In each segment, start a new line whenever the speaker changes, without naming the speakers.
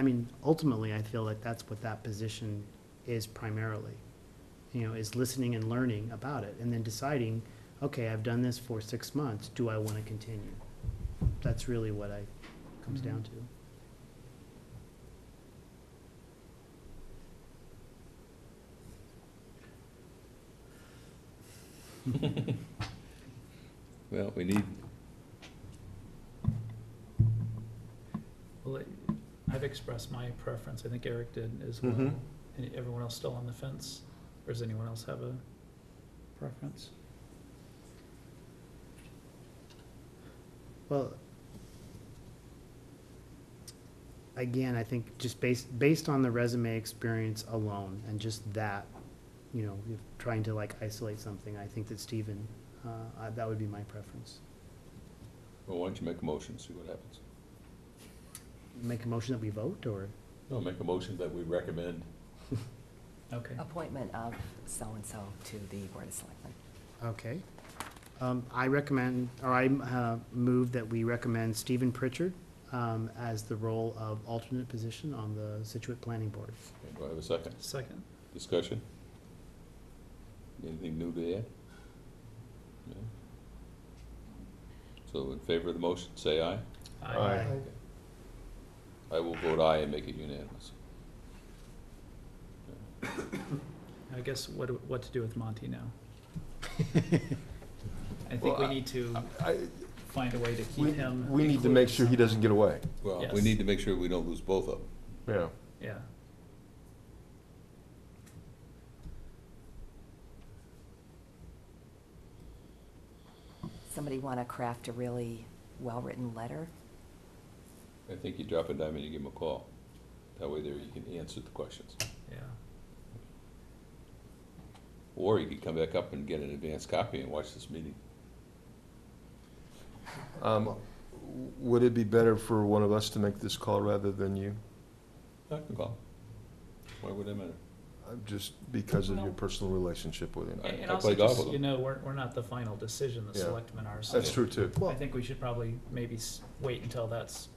I mean, ultimately, I feel like that's what that position is primarily. You know, is listening and learning about it and then deciding, okay, I've done this for six months, do I want to continue? That's really what I, comes down to.
Well, we need,
Well, I- I've expressed my preference, I think Eric did as well.
Mm-hmm.
Mhm.
And everyone else still on the fence? Or does anyone else have a preference?
Well, again, I think just based, based on the resume experience alone and just that, you know, if trying to like isolate something, I think that Stephen, uh, I- that would be my preference.
well, why don't you make a motion, see what happens?
Make a motion that we vote or?
No, make a motion that we recommend.
Okay,
appointment of so-and-so to the Board of Selectmen.
Okay. Um, I recommend, or I uh, move that we recommend Stephen Pritchard um, as the role of alternate position on the Situate Planning Board.
Okay, Do I have a second?
second.
Discussion? Anything new to add? No? So in favor of the motion, say aye.
Aye.
I will vote aye and make it unanimous.
I guess what, do- what to do with Monty now? I think we
Well, I-
need to
I,
find a way to
we,
keep him.
we need to make sure he doesn't get away,
Well, we
Yes.
need to make sure we don't lose both of them.
yeah.
Yeah,
Somebody want to craft a really well-written letter?
I think you drop a dime and you give them a call. That way there you can answer the questions.
yeah.
Or you could come back up and get an advanced copy and watch this meeting.
Um, Would it be better for one of us to make this call rather than you?
I can call. Why would it matter?
Uh, Just because of your personal relationship with him?
I-
And- And
I
also,
play golf
just,
with
you
him.
know, we're, we're not the final decision, the
Yeah.
selectmen are. so-
That's true, too.
I think we should probably maybe s- wait until that's,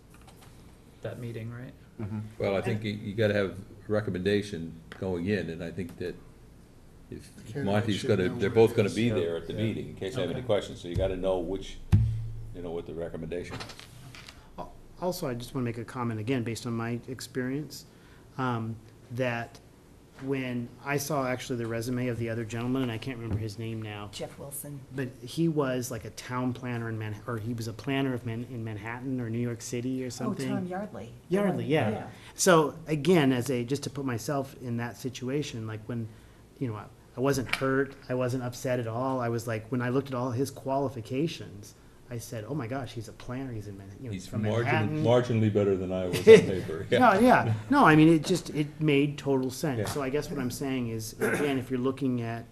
that meeting, right?
Mm-hmm.
Well, I think you, you gotta have recommendation going in, and I think that if
Candidate
Monty's
should
gonna,
know
they're
where it
both gonna
is.
be
Yeah.
there at the
Yeah.
meeting, in case they have any
Okay.
questions, so you gotta know which, you know, what the recommendation. is.
Also, I just want to make a comment again, based on my experience, um, that when I saw actually the resume of the other gentleman, and I can't remember his name now,
Jeff Wilson,
but he was like a town planner in Manhattan, or he was a planner of Man, in Manhattan or New York City or
oh,
something.
Tom Yardley. the one-
Yardley, yeah. So again, as a, just to put myself in that situation, like when, you know, I I wasn't hurt, I wasn't upset at all. I was like, when I looked at all his qualifications, I said, oh my gosh, he's a planner, he's in Manhattan, you know, he's
He's
from
marginally,
Manhattan.
marginally better than I was on paper, yeah.
No, yeah, no, I mean, it just, it made total
Yeah.
sense. So I guess what I'm saying is, again, if you're looking at,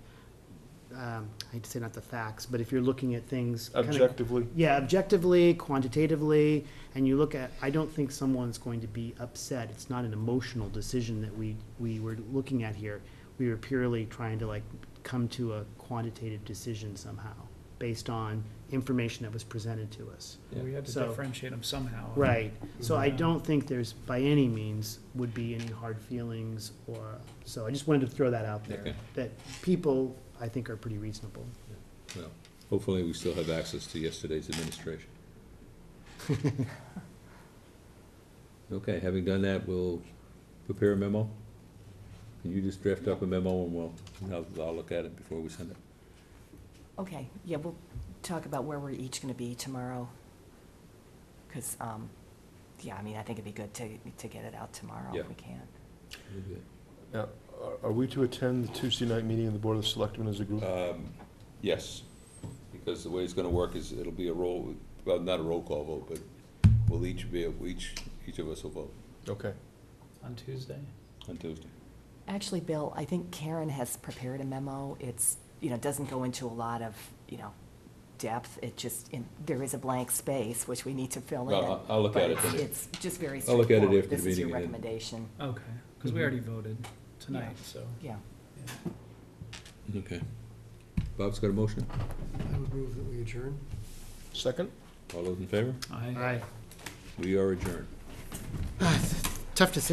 um, I hate to say not the facts, but if you're looking at things. kinda-
Objectively,
yeah, objectively, quantitatively, and you look at, I don't think someone's going to be upset. It's not an emotional decision that we, we were looking at here. We were purely trying to like come to a quantitative decision somehow, based on information that was presented to us.
Yeah.
We had to
So-
differentiate him somehow.
Right, so I
Yeah.
don't think there's, by any means, would be any hard feelings or, so I just wanted to throw that out there.
Okay.
That people, I think, are pretty reasonable.
Well, Hopefully, we still have access to yesterday's administration. Okay, having done that, we'll prepare a memo. Can you just draft up a memo and we'll, I'll, I'll look at it before we send it?
Okay, yeah, we'll talk about where we're each going to be tomorrow. Because, yeah, I mean, I think it'd be good to, to get it out tomorrow
Yeah.
if we can.
Now, are- are we to attend the Tuesday night meeting of the Board of Selectmen as a group?
Um, Yes, because the way it's gonna work is it'll be a roll, well, not a roll call vote, but we'll each be, each, each of us will vote
Okay.
On Tuesday?
on Tuesday.
Actually, Bill, I think Karen has prepared a memo. It's, you know, doesn't go into a lot of, you know, depth. It just, in- there is a blank space which we need to fill in.
Well, I'll- I'll look
but
at it
it's-
then.
It's just very
I'll look at it
straightforward.
after the
This is your
meeting and then-
recommendation,
Okay, because we already voted tonight,
Yeah.
so.
yeah.
Okay. Bob's got a motion.
I would move that we adjourn.
Second?
All those in favor?
I.
All right.
We are adjourned.
tough decision